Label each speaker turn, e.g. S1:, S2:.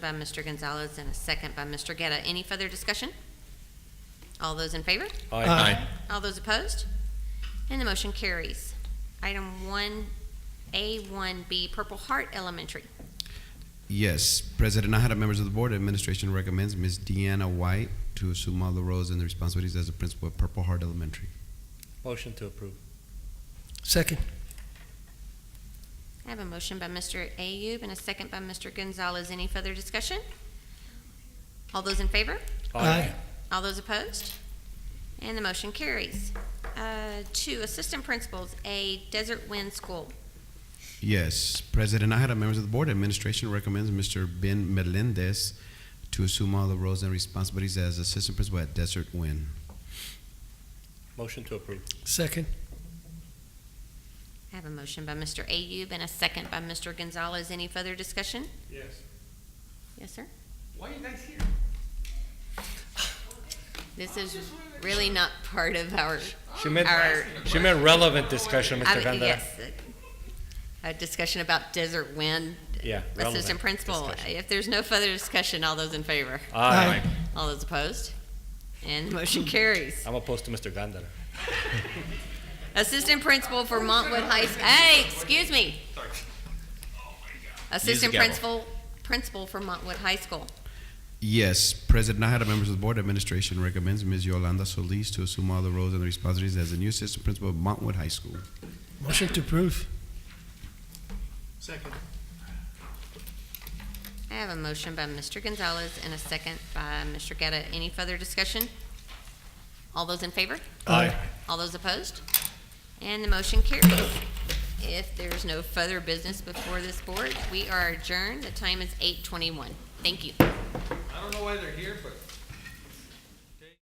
S1: by Mr. Gonzalez and a second by Mr. Getta. Any further discussion? All those in favor?
S2: Aye.
S1: All those opposed? And the motion carries. Item one A, one B, Purple Heart Elementary.
S3: Yes, President Nahara, members of the board, administration recommends Ms. Deanna White to assume all the roles and the responsibilities as the principal of Purple Heart Elementary.
S2: Motion to approve.
S4: Second.
S1: I have a motion by Mr. Ayub and a second by Mr. Gonzalez. Any further discussion? All those in favor? All those opposed? And the motion carries. Uh, Two, Assistant Principals, A, Desert Wind School.
S3: Yes, President Nahara, members of the board, administration recommends Mr. Ben Melendez to assume all the roles and responsibilities as assistant principal at Desert Wind.
S2: Motion to approve.
S4: Second.
S1: I have a motion by Mr. Ayub and a second by Mr. Gonzalez. Any further discussion?
S2: Yes.
S1: Yes, sir?
S5: Why are you guys here?
S1: This is really not part of our,
S2: She meant,
S1: our,
S2: she meant relevant discussion,
S1: I
S2: Mr.
S1: mean,
S2: Vandera.
S1: yes. A discussion about Desert Wind.
S2: Yeah,
S1: Assistant
S2: relevant
S1: Principal.
S2: discussion.
S1: If there's no further discussion, all those in favor?
S2: Aye.
S1: All those opposed? And the motion carries.
S2: I'm opposed to Mr. Gandara.
S1: Assistant Principal for Montwood High, S- hey, excuse me. Assistant
S6: gavel.
S1: Principal, Principal for Montwood High School.
S3: Yes, President Nahara, members of the board, administration recommends Ms. Yolanda Solis to assume all the roles and the responsibilities as the new assistant principal of Montwood High School.
S4: Motion to approve.
S5: Second.
S1: I have a motion by Mr. Gonzalez and a second by Mr. Getta. Any further discussion? All those in favor?
S4: Aye.
S1: All those opposed? And the motion carries. If there's no further business before this board, we are adjourned. The time is eight twenty-one. Thank you.
S5: I don't know what